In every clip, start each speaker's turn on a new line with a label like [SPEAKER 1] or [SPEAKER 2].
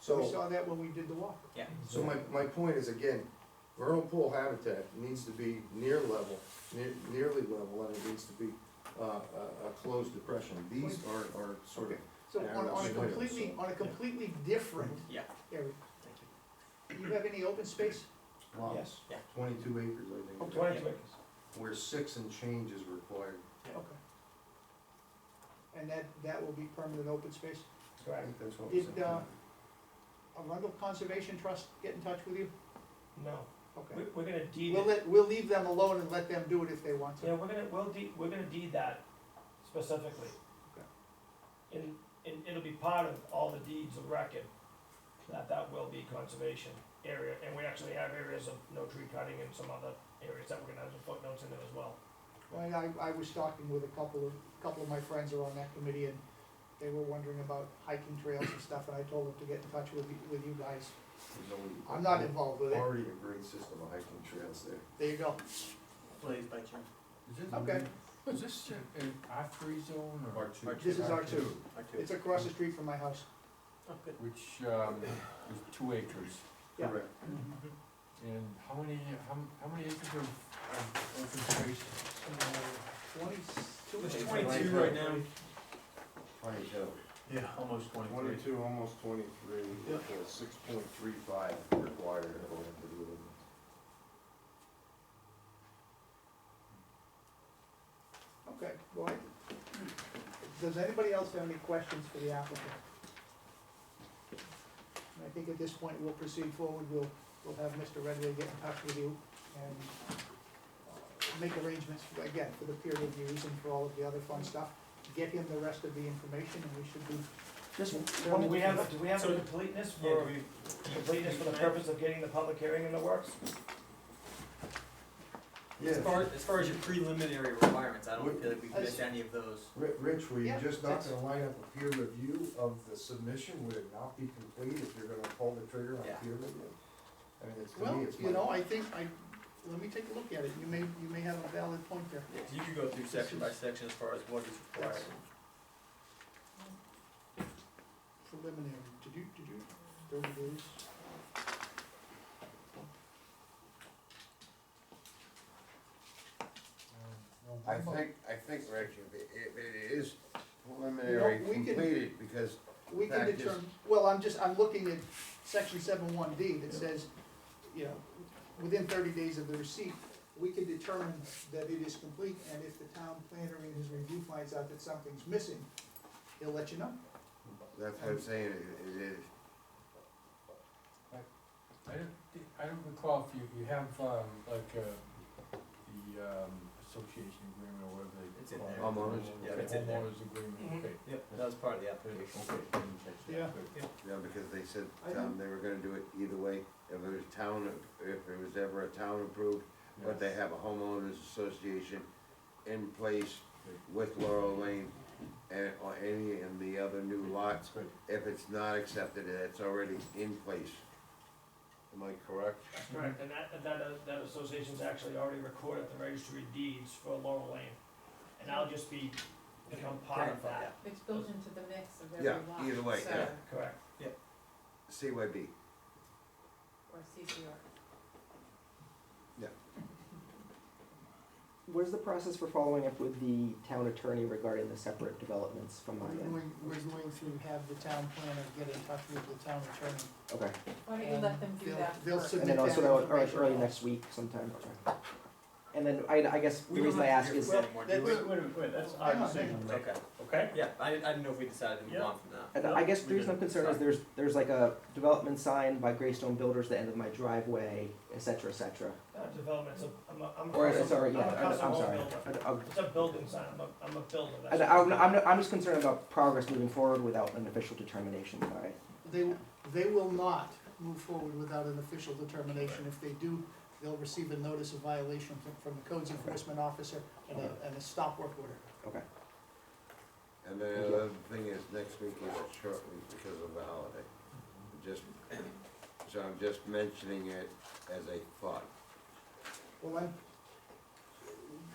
[SPEAKER 1] So.
[SPEAKER 2] We saw that when we did the walk.
[SPEAKER 3] Yeah.
[SPEAKER 1] So my, my point is, again, vernal pool habitat needs to be near level, near, nearly level, and it needs to be, uh, a, a closed depression. These are, are sort of,
[SPEAKER 2] So
[SPEAKER 1] Yeah,
[SPEAKER 2] on, on a
[SPEAKER 1] that's right.
[SPEAKER 2] completely, on a completely different
[SPEAKER 3] Yeah.
[SPEAKER 2] area. Do you have any open space?
[SPEAKER 1] lots,
[SPEAKER 4] Yes.
[SPEAKER 3] Yeah.
[SPEAKER 1] twenty-two acres, I think,
[SPEAKER 4] Twenty-two acres.
[SPEAKER 1] where six and change is required.
[SPEAKER 2] Okay. And that, that will be permanent open space?
[SPEAKER 1] I
[SPEAKER 4] Correct.
[SPEAKER 1] think that's what was.
[SPEAKER 2] Did, uh, Arundel Conservation Trust get in touch with you?
[SPEAKER 4] No, we,
[SPEAKER 2] Okay.
[SPEAKER 4] we're gonna deed
[SPEAKER 2] We'll
[SPEAKER 4] it,
[SPEAKER 2] let, we'll leave them alone and let them do it if they want
[SPEAKER 4] yeah,
[SPEAKER 2] to.
[SPEAKER 4] we're gonna, we'll deed, we're gonna deed that specifically. And, and it'll be part of all the deeds of record, that that will be conservation area, and we actually have areas of no tree cutting and some other areas that we're gonna have some footnotes in there as well.
[SPEAKER 2] Well, I, I was talking with a couple of, couple of my friends who are on that committee and they were wondering about hiking trails and stuff and I told them to get in touch with, you- with you guys. I'm not involved with it.
[SPEAKER 1] Already a great system of hiking trails there.
[SPEAKER 2] There you go.
[SPEAKER 3] Please, by chance.
[SPEAKER 2] Okay,
[SPEAKER 5] Is this in- in R three zone or?
[SPEAKER 1] R two.
[SPEAKER 2] This is R two.
[SPEAKER 3] I do.
[SPEAKER 2] it's across the street from my house.
[SPEAKER 3] Oh, good.
[SPEAKER 5] Which, um, is two acres,
[SPEAKER 2] Yeah.
[SPEAKER 1] Correct.
[SPEAKER 4] Mm-hmm.
[SPEAKER 5] and how many, how, m- how many acres of, of open space?
[SPEAKER 2] Twenty-two.
[SPEAKER 3] It's
[SPEAKER 2] acres.
[SPEAKER 3] 22 right now.
[SPEAKER 1] Twenty-two.
[SPEAKER 3] Yeah, almost twenty-three.
[SPEAKER 1] Twenty-two, almost twenty-three,
[SPEAKER 2] Yeah.
[SPEAKER 1] six point three five required according to the ordinance.
[SPEAKER 2] Okay, go ahead. Does anybody else have any questions for the applicant? I think at this point, we'll proceed forward, we'll, we'll have Mr. Redway get in touch with you and uh, make arrangements, for- again, for the peer reviews and for all of the other fun stuff. Get him the rest of the information and we should be,
[SPEAKER 4] Just,
[SPEAKER 2] one-
[SPEAKER 4] do we have, do we have
[SPEAKER 3] So-
[SPEAKER 4] a completeness for, completeness for the purpose of getting the public hearing in the works?
[SPEAKER 3] As
[SPEAKER 1] Yeah,
[SPEAKER 3] far, as far as your preliminary requirements, I don't
[SPEAKER 1] Wait.
[SPEAKER 3] feel like we've
[SPEAKER 2] I
[SPEAKER 3] missed any of those.
[SPEAKER 1] Ri- Rich, were you
[SPEAKER 2] Yeah.
[SPEAKER 1] just not gonna line up a peer review of the submission, would it not be complete if you're gonna pull the trigger on
[SPEAKER 3] Yeah.
[SPEAKER 1] peer review? I mean, it's, to
[SPEAKER 2] well,
[SPEAKER 1] me, it's
[SPEAKER 2] you know,
[SPEAKER 1] like,
[SPEAKER 2] I think, I, let me take a look at it, you may, you may have a valid point there.
[SPEAKER 3] Yeah, 'cause you could go through section by section as far as what is required.
[SPEAKER 2] Preliminary, did you, did you, thirty days?
[SPEAKER 6] I think, I think, Rich, if it, if it is
[SPEAKER 2] No,
[SPEAKER 6] preliminary
[SPEAKER 2] we can-
[SPEAKER 6] completed, because
[SPEAKER 2] We can
[SPEAKER 6] That is-
[SPEAKER 2] determine, well, I'm just, I'm looking at section seven one D that says, you know, within thirty days of the receipt, we can determine that it is complete, and if the town planner in his review finds out that something's missing, he'll let you know.
[SPEAKER 6] that's what I'm saying, it, it is.
[SPEAKER 5] I don't, thi- I don't recall if you, you have, um, like, uh, the, um, association agreement or whatever they.
[SPEAKER 3] It's in
[SPEAKER 5] call it.
[SPEAKER 3] there.
[SPEAKER 1] Homeowners.
[SPEAKER 3] Yeah,
[SPEAKER 5] Okay,
[SPEAKER 3] it's in there.
[SPEAKER 5] Homeowners agreement,
[SPEAKER 4] Mhm.
[SPEAKER 5] okay.
[SPEAKER 3] Yep, that was part of the
[SPEAKER 5] Good,
[SPEAKER 3] application.
[SPEAKER 5] Okay, didn't catch that,
[SPEAKER 2] Yeah.
[SPEAKER 5] good.
[SPEAKER 6] Yeah, because they said,
[SPEAKER 2] I
[SPEAKER 6] um, they were gonna do it either way, if it was town, if it was ever a town approved, but they have a homeowners association in place with Laurel Lane and, or any and the other new lots,
[SPEAKER 5] That's good.
[SPEAKER 6] if it's not accepted, it's already in place. Am I correct?
[SPEAKER 4] Correct, and that, and that, uh, that association's actually already recorded at the registry of deeds for Laurel Lane, and I'll just be, become part of that,
[SPEAKER 7] It's built into the mix of
[SPEAKER 6] Yeah,
[SPEAKER 7] every lot.
[SPEAKER 6] either way,
[SPEAKER 7] so-
[SPEAKER 6] yeah.
[SPEAKER 4] correct?
[SPEAKER 6] CYB.
[SPEAKER 7] Or CCR.
[SPEAKER 8] What is the process for following up with the town attorney regarding the separate developments from my
[SPEAKER 2] We're
[SPEAKER 8] end?
[SPEAKER 2] going, we're going to have the town planner get in touch with the town attorney.
[SPEAKER 8] Okay,
[SPEAKER 7] Why don't you let them do
[SPEAKER 2] They'll-
[SPEAKER 7] that
[SPEAKER 2] they'll
[SPEAKER 7] first?
[SPEAKER 8] and then
[SPEAKER 2] Submit
[SPEAKER 8] also,
[SPEAKER 2] that
[SPEAKER 8] that would- or like
[SPEAKER 2] information.
[SPEAKER 8] early next week sometime, okay. And then, I, I guess,
[SPEAKER 3] We
[SPEAKER 8] the
[SPEAKER 3] don't
[SPEAKER 8] reason I
[SPEAKER 3] have
[SPEAKER 8] ask
[SPEAKER 3] to
[SPEAKER 8] is,
[SPEAKER 3] hear from anyone, do
[SPEAKER 2] That-
[SPEAKER 3] we?
[SPEAKER 2] that-
[SPEAKER 4] wait, wait, that's
[SPEAKER 2] our Hang on, decision, hang
[SPEAKER 3] Okay,
[SPEAKER 4] Okay?
[SPEAKER 3] yeah, I didn't, I didn't know if we decided to move
[SPEAKER 4] Yeah.
[SPEAKER 3] on from that.
[SPEAKER 8] and I guess the
[SPEAKER 3] We
[SPEAKER 8] reason I'm
[SPEAKER 3] did.
[SPEAKER 8] concerned is
[SPEAKER 3] Sorry.
[SPEAKER 8] there's, there's like a development sign by Greystone Builders, the end of my driveway, et cetera, et cetera.
[SPEAKER 4] Not development's a, Uh, I'm a, I'm a.
[SPEAKER 8] Or,
[SPEAKER 4] custom-
[SPEAKER 8] sorry, yeah,
[SPEAKER 4] I'm a
[SPEAKER 8] I'm,
[SPEAKER 4] custom
[SPEAKER 8] I'm
[SPEAKER 4] home
[SPEAKER 8] sorry.
[SPEAKER 4] builder.
[SPEAKER 8] I- I'm-
[SPEAKER 4] It's a building sign, I'm a, I'm a builder, that's.
[SPEAKER 8] And I'm, I'm, I'm just concerned about progress moving forward without an official determination by,
[SPEAKER 2] They, they will not move forward without an official determination. If they do, they'll receive a notice of violation from- from the codes enforcement officer and a, and a stop work order.
[SPEAKER 8] okay.
[SPEAKER 6] And then the other thing is, next week is a short week because of the holiday. Just, so I'm just mentioning it as a thought.
[SPEAKER 2] Well, I'm,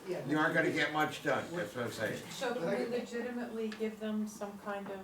[SPEAKER 2] yeah.
[SPEAKER 6] You aren't gonna get much done, that's what I'm saying.
[SPEAKER 7] So can we legitimately give them some kind of